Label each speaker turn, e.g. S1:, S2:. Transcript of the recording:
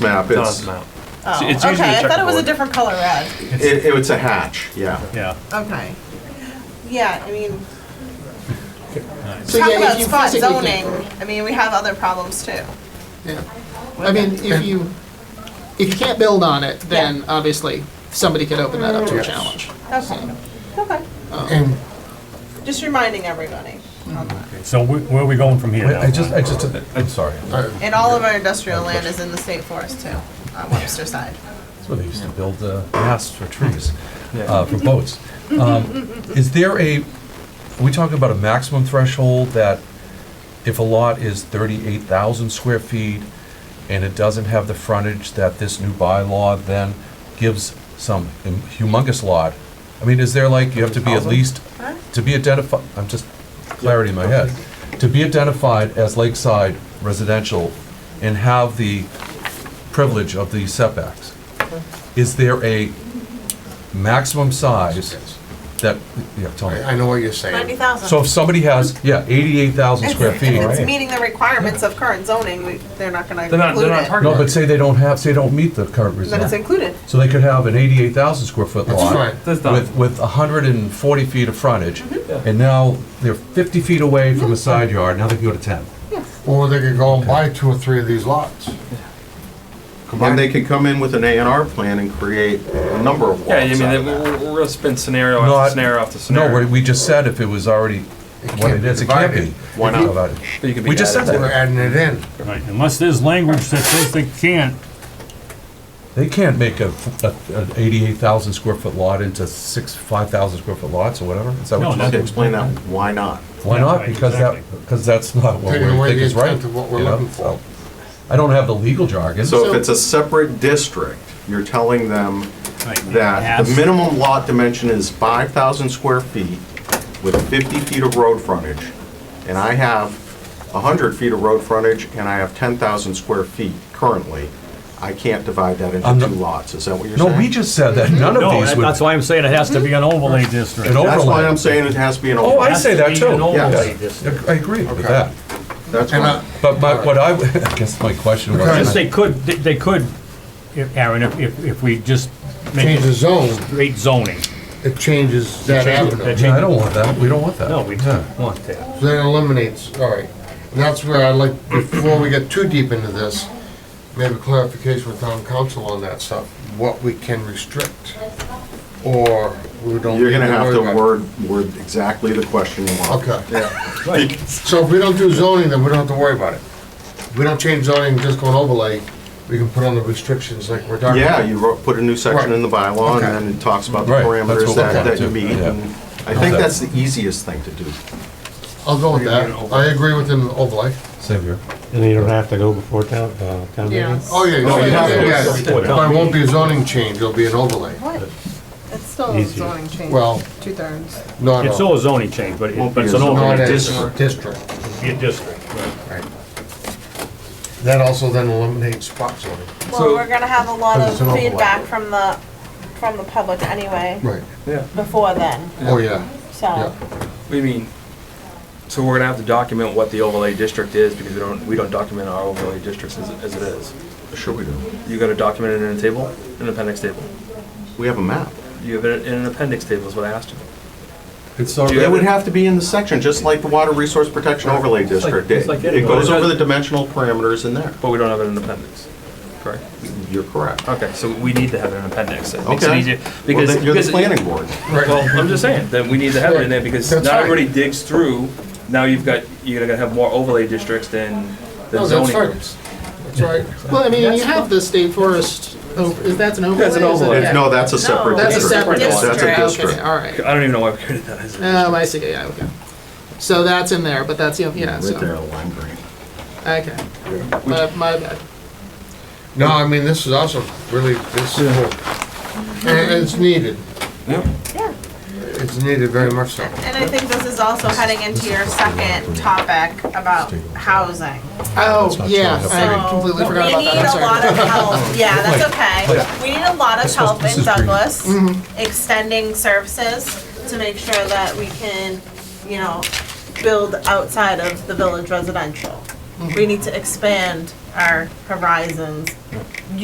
S1: map, it's,
S2: Does map.
S3: Oh,
S2: It's usually a
S3: okay. I thought it was a
S2: checkerboard.
S3: different color red.
S1: it, it's a hatch, yeah.
S2: Yeah.
S3: Okay. Yeah, I mean,
S4: So
S3: talk
S4: yeah, if
S3: about
S4: you
S3: spot
S4: physically
S3: zoning.
S4: can-
S3: I mean, we have other problems too.
S4: Yeah. I mean, if you, if you can't build on it, then obviously somebody could open that up to a challenge.
S3: Okay. Okay.
S5: And
S3: Just reminding everybody on that.
S6: So where where are we going from here
S5: wait,
S6: now?
S5: I just, I just, I'm sorry. That's
S3: And all of our industrial land is in the state forest too, on Webster side.
S5: where they used to build uh, masts for trees,
S2: Yeah.
S5: uh, for boats. Um, Is there a, are we talking about a maximum threshold that if a lot is 38,000 square feet and it doesn't have the frontage that this new bylaw then gives some humongous lot? I mean, is there like, you have to be at
S2: 100,000?
S5: least to be identified, I'm just, clarity in my head, to be identified as lakeside residential and have the privilege of the setbacks, is there a maximum size that, yeah, tell
S7: I
S5: me.
S7: I know what you're saying.
S3: thousand.
S5: So if somebody has, yeah, 88,000 square feet,
S3: If it's
S5: no,
S3: meeting the requirements of current zoning, we, they're not gonna
S2: They're not, they're
S3: include
S2: not
S3: it.
S2: targeted.
S5: but say they don't have, say they don't meet the current
S3: Then it's
S5: requirement.
S3: included.
S5: So they could have an 88,000 square foot
S7: That's Mm-hmm.
S5: lot
S7: fine.
S2: That's done.
S5: with, with 140 feet of frontage, and now they're 50 feet away
S7: Mm-hmm.
S5: from a side yard, now they can go to 10.
S7: Or they could go and buy two or three of these lots.
S1: And they could come in with an A and R plan and create a number of lots
S2: Yeah, I mean,
S1: out of
S2: they-
S1: that.
S2: we're, we're gonna spin scenario
S5: No, I-
S2: after scenario after
S5: No,
S2: scenario.
S5: we- we just said if it was already what
S7: can't
S5: it
S7: be
S5: is, it can't be.
S7: divided.
S1: Why not?
S5: Divided.
S2: But you could be
S5: we just
S2: added
S5: said
S2: to
S5: that.
S7: We're
S2: it.
S7: adding it in.
S6: Right, unless there's language that says they can't,
S5: They can't make a, f- a- an eighty-eight thousand square foot lot into six, five thousand square foot lots or whatever, is that
S6: No,
S5: what you
S6: no.
S1: Just
S5: said?
S1: explain that, why not?
S5: Why
S6: Yeah,
S5: not?
S6: right,
S5: Because that,
S6: exactly.
S5: because that's not what we
S7: Taking away
S5: think
S7: the
S5: is right.
S7: intent of what we're
S5: you know,
S7: looking for.
S5: so. I don't have the legal jargon.
S1: So if
S4: So-
S1: it's a separate district, you're telling them
S6: Right,
S1: that the
S6: yes.
S1: minimum lot dimension is 5,000 square feet with 50 feet of road frontage, and I have 100 feet of road frontage, and I have 10,000 square feet currently, I can't divide that
S5: I'm
S1: into
S5: not-
S1: two lots, is that what you're
S5: No,
S1: saying?
S5: we just said that
S7: Mm-hmm.
S5: none of
S6: no,
S5: these
S6: that-
S5: would.
S6: that's why I'm saying it has to be an overlay district.
S5: An overlay.
S1: That's why I'm saying it has to be an
S5: Oh, I
S1: overlay.
S6: Has
S5: say
S6: to
S5: that
S6: be
S5: too,
S6: an overlay
S5: yes.
S6: district.
S5: I agree with
S7: Okay.
S5: that.
S1: That's
S7: And,
S1: why,
S7: uh,
S5: But my, what I, I guess my question was.
S7: Because-
S6: Just they could, they- they could, if- Aaron, if- if, if we just make
S7: Change the
S6: it
S7: zone,
S6: straight zoning.
S7: it changes that
S6: Change it-
S7: avenue.
S6: that change-
S5: Yeah, I don't want that, we don't want that.
S6: No, we don't want that.
S7: Then it eliminates, all right. And that's where I'd like, before we get too deep into this, maybe clarification with town council on that stuff, what we can restrict. Or we don't.
S1: you're gonna
S7: need
S1: have to
S7: worry about.
S1: word, word exactly the question you want.
S7: Okay, yeah. So if we don't do zoning, then we don't have to worry about it. If we don't change zoning, just go on overlay, we can put on the restrictions like we're talking about.
S1: Yeah, you wrote, put a new section in the bylaw, and then it talks about the
S5: Right. Right, that's
S1: parameters
S5: what
S1: that,
S5: we're
S1: that you
S5: gonna do,
S1: meet,
S5: yeah.
S1: and I think that's the easiest thing to do.
S7: I'll go with that. I agree with an overlay.
S5: Same here.
S8: And you don't have to go before town, uh, town meeting?
S7: Oh, yeah,
S1: No,
S7: yeah,
S1: you have to.
S7: yeah, yeah. But it won't be a zoning change, it'll be an overlay.
S3: What? It's still a
S8: Easier.
S3: zoning change.
S7: Well-
S3: Two thirds.
S7: No,
S6: It's
S7: no.
S6: still a zoning change, but it-
S1: Won't
S6: but
S1: be
S6: it's
S1: a
S6: an
S1: zoning
S7: Not
S6: overlay
S7: a
S6: district,
S7: district.
S6: It'd be a district.
S7: That also then eliminates spot zoning.
S3: Well, we're gonna have a lot
S7: Because
S3: of
S7: it's an overlay.
S3: feedback from the, from the public anyway,
S7: Right.
S3: before then,
S7: Oh, yeah,
S3: so.
S7: yeah.
S9: We mean, so we're gonna have to document what the overlay district is, because we don't, we don't document our overlay districts as, as it is.
S1: Sure we do.
S9: You gotta document it in a table, an appendix table.
S1: We have a map.
S9: You have it in an appendix table is what I asked you.
S5: It's already.
S1: It would have to be in the section, just like the Water Resource Protection Overlay District. It
S9: it's like
S1: it
S9: anything.
S1: goes over the dimensional parameters in there.
S9: But we don't have it in an appendix, correct?
S1: You're correct.
S9: Okay, so we need to have it in an appendix. It makes it
S1: Okay.
S9: easier.
S1: Well,
S9: Because,
S1: then you're the
S9: because,
S1: planning board.
S9: well, I'm just saying, that we need to have it in there, because
S7: That's
S9: not
S7: right.
S9: everybody digs through. Now you've got, you're gonna have more overlay districts than,
S7: No,
S9: than
S7: that's
S9: zoning
S7: right.
S9: groups.
S7: That's right.
S4: Well, I mean, you have the state forest, oh, is that an overlay?
S9: That's an
S4: Is it-
S9: overlay.
S4: yeah.
S1: No, that's a separate
S4: That's a
S1: district.
S4: separate district.
S1: That's a
S4: Okay,
S1: district.
S4: all right.
S9: I don't even know why we created that as a
S4: Oh, I see, yeah, okay. So that's in there, but that's, the yeah, so,
S1: Right there, lime green.
S4: okay. My, my bad.
S7: No, I mean, this is awesome, really, this is cool. And it's needed,
S3: Yeah.
S7: it's needed very much so.
S3: And I think this is also heading into your second topic about housing.
S5: that's
S4: Oh,
S5: not
S4: yeah,
S5: true.
S4: I completely
S3: Oh. We
S4: forgot about
S3: need
S4: that, I'm
S3: a lot
S4: sorry.
S3: of help, yeah, that's okay. We need a lot of
S5: This was-
S3: help
S5: this
S3: in
S5: is green.
S3: Douglas,
S4: Mm-hmm.
S3: extending services to make sure that we can, you know, build outside of the village residential.
S4: Mm-hmm.
S3: we need to expand our horizons